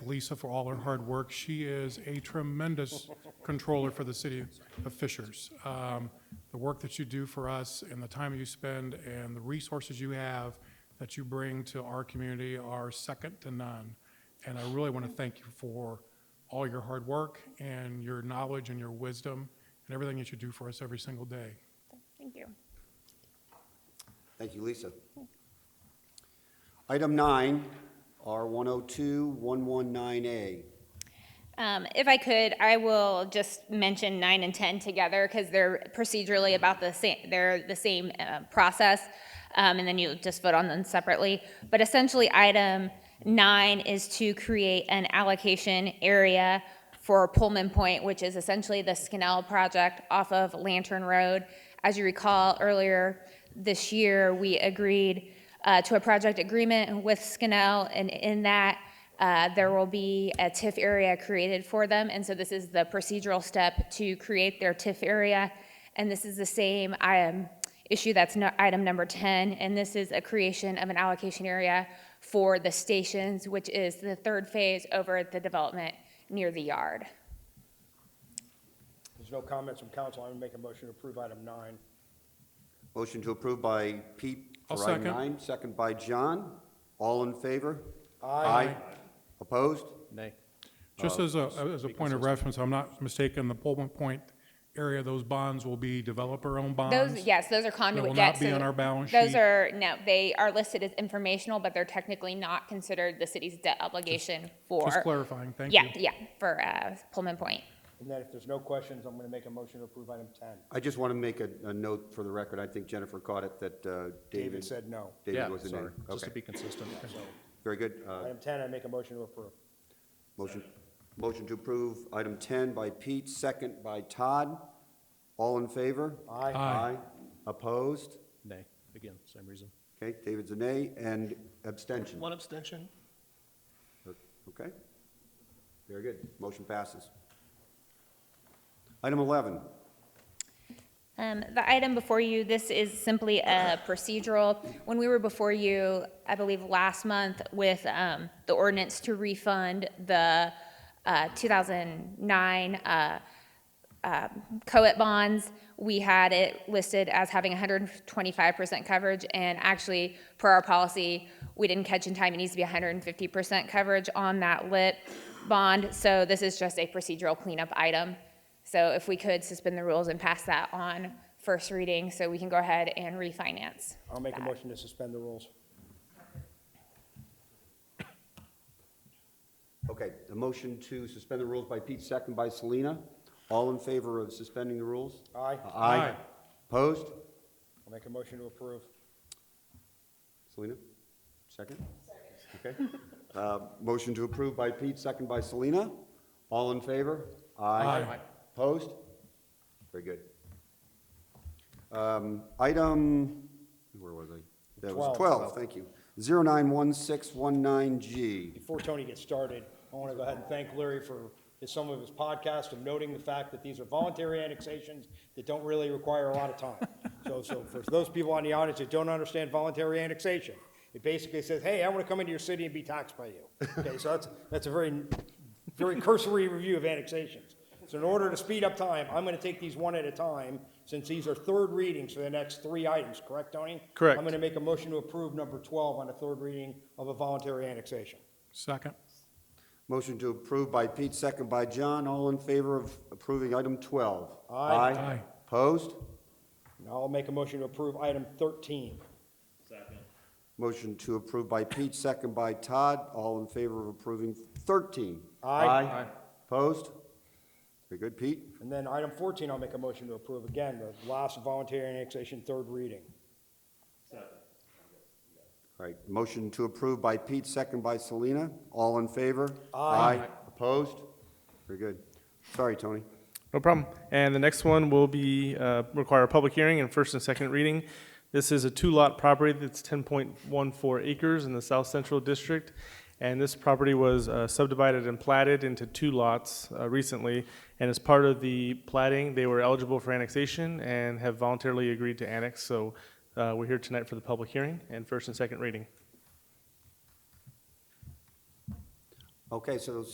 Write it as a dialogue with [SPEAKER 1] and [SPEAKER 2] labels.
[SPEAKER 1] Lisa for all her hard work. She is a tremendous controller for the city of Fishers. Um, The work that you do for us and the time you spend and the resources you have that you bring to our community are second to none. And I really want to thank you for all your hard work and your knowledge and your wisdom and everything that you do for us every single day.
[SPEAKER 2] Thank you.
[SPEAKER 3] Thank you, Lisa. Item nine, R 102-119A.
[SPEAKER 2] Um, If I could, I will just mention nine and 10 together because they're procedurally about the same, they're the same uh, process. um, And then you just vote on them separately. But essentially, item nine is to create an allocation area for Pullman Point, which is essentially the Skinnell project off of Lantern Road. As you recall, earlier this year, we agreed uh, to a project agreement with Skinnell, and in that, uh, there will be a TIF area created for them, and so this is the procedural step to create their TIF area. And this is the same um, issue that's no- item number 10, and this is a creation of an allocation area for the stations, which is the third phase over at the development near the yard.
[SPEAKER 4] There's no comments from council. I'm going to make a motion to approve item nine.
[SPEAKER 3] Motion to approve by Pete
[SPEAKER 1] I'll
[SPEAKER 3] for item
[SPEAKER 1] second.
[SPEAKER 3] nine, second by John. All in favor? Opposed?
[SPEAKER 5] Nay.
[SPEAKER 1] Just as a, as a point of reference, I'm not mistaken, the Pullman Point area, those bonds will be developer-owned bonds.
[SPEAKER 2] Those, yes, those are conduit
[SPEAKER 1] not
[SPEAKER 2] debts.
[SPEAKER 1] be
[SPEAKER 2] so
[SPEAKER 1] on our balance
[SPEAKER 2] Those
[SPEAKER 1] sheet.
[SPEAKER 2] are, no, they are listed as informational, but they're technically not considered the city's debt obligation for.
[SPEAKER 1] Just clarifying, thank you.
[SPEAKER 2] Yeah, yeah, for uh, Pullman Point.
[SPEAKER 4] And then if there's no questions, I'm going to make a motion to approve item 10.
[SPEAKER 3] I just want to make a, a note for the record. I think Jennifer caught it that uh,
[SPEAKER 4] David
[SPEAKER 3] David.
[SPEAKER 4] said no.
[SPEAKER 3] David
[SPEAKER 5] Yeah,
[SPEAKER 3] was the name.
[SPEAKER 5] sorry, just to
[SPEAKER 3] Okay,
[SPEAKER 5] be consistent.
[SPEAKER 3] very good. Uh,
[SPEAKER 4] Item 10, I make a motion to approve.
[SPEAKER 3] Motion, motion to approve item 10 by Pete, second by Todd. All in favor?
[SPEAKER 4] Aye.
[SPEAKER 1] Aye.
[SPEAKER 3] Opposed?
[SPEAKER 5] Nay, again, same reason.
[SPEAKER 3] Okay, David's a nay, and abstention.
[SPEAKER 5] One abstention?
[SPEAKER 3] Okay? Very good. Motion passes. Item 11,
[SPEAKER 2] Um, The item before you, this is simply a procedural. When we were before you, I believe, last month with um, the ordinance to refund the uh, 2009 uh, co-op bonds, we had it listed as having 125% coverage, and actually, per our policy, we didn't catch in time, it needs to be 150% coverage on that lit bond, so this is just a procedural cleanup item. So if we could suspend the rules and pass that on first reading, so we can go ahead and refinance.
[SPEAKER 4] I'll make a
[SPEAKER 2] that.
[SPEAKER 4] motion to suspend the rules.
[SPEAKER 3] okay, a motion to suspend the rules by Pete, second by Selena. All in favor of suspending the rules?
[SPEAKER 4] Aye.
[SPEAKER 3] Aye. Opposed?
[SPEAKER 4] I'll make a motion to approve.
[SPEAKER 3] Selena, second? Okay. Uh, Motion to approve by Pete, second by Selena. All in favor?
[SPEAKER 1] Aye.
[SPEAKER 3] Opposed? Very good. Um, Item, where was I? That was
[SPEAKER 4] Twelve.
[SPEAKER 3] 12, thank you. 091619G.
[SPEAKER 4] Before Tony gets started, I want to go ahead and thank Larry for his- some of his podcast and noting the fact that these are voluntary annexations that don't really require a lot of time. So, so for those people on the audience that don't understand voluntary annexation, it basically says, hey, I want to come into your city and be taxed by you. Okay, so that's, that's a very, very cursory review of annexations. So in order to speed up time, I'm going to take these one at a time, since these are third readings for the next three items, correct, Tony?
[SPEAKER 5] Correct.
[SPEAKER 4] I'm going to make a motion to approve number 12 on the third reading of a voluntary annexation.
[SPEAKER 1] Second,
[SPEAKER 3] Motion to approve by Pete, second by John. All in favor of approving item 12?
[SPEAKER 4] Aye.
[SPEAKER 1] Aye.
[SPEAKER 3] Opposed?
[SPEAKER 4] Now I'll make a motion to approve item 13.
[SPEAKER 3] Motion to approve by Pete, second by Todd. All in favor of approving 13?
[SPEAKER 4] Aye. Aye.
[SPEAKER 3] Opposed? Very good, Pete.
[SPEAKER 4] And then item 14, I'll make a motion to approve again, the last voluntary annexation, third reading.
[SPEAKER 3] All right, motion to approve by Pete, second by Selena. All in favor?
[SPEAKER 4] Aye.
[SPEAKER 3] Opposed? Very good. Sorry, Tony.
[SPEAKER 6] No problem. And the next one will be, uh, require a public hearing and first and second reading. This is a two-lot property that's 10.14 acres in the South Central District. And this property was uh, subdivided and platted into two lots uh, recently. And as part of the plating, they were eligible for annexation and have voluntarily agreed to annex. So uh, we're here tonight for the public hearing and first and second reading.
[SPEAKER 3] Okay, so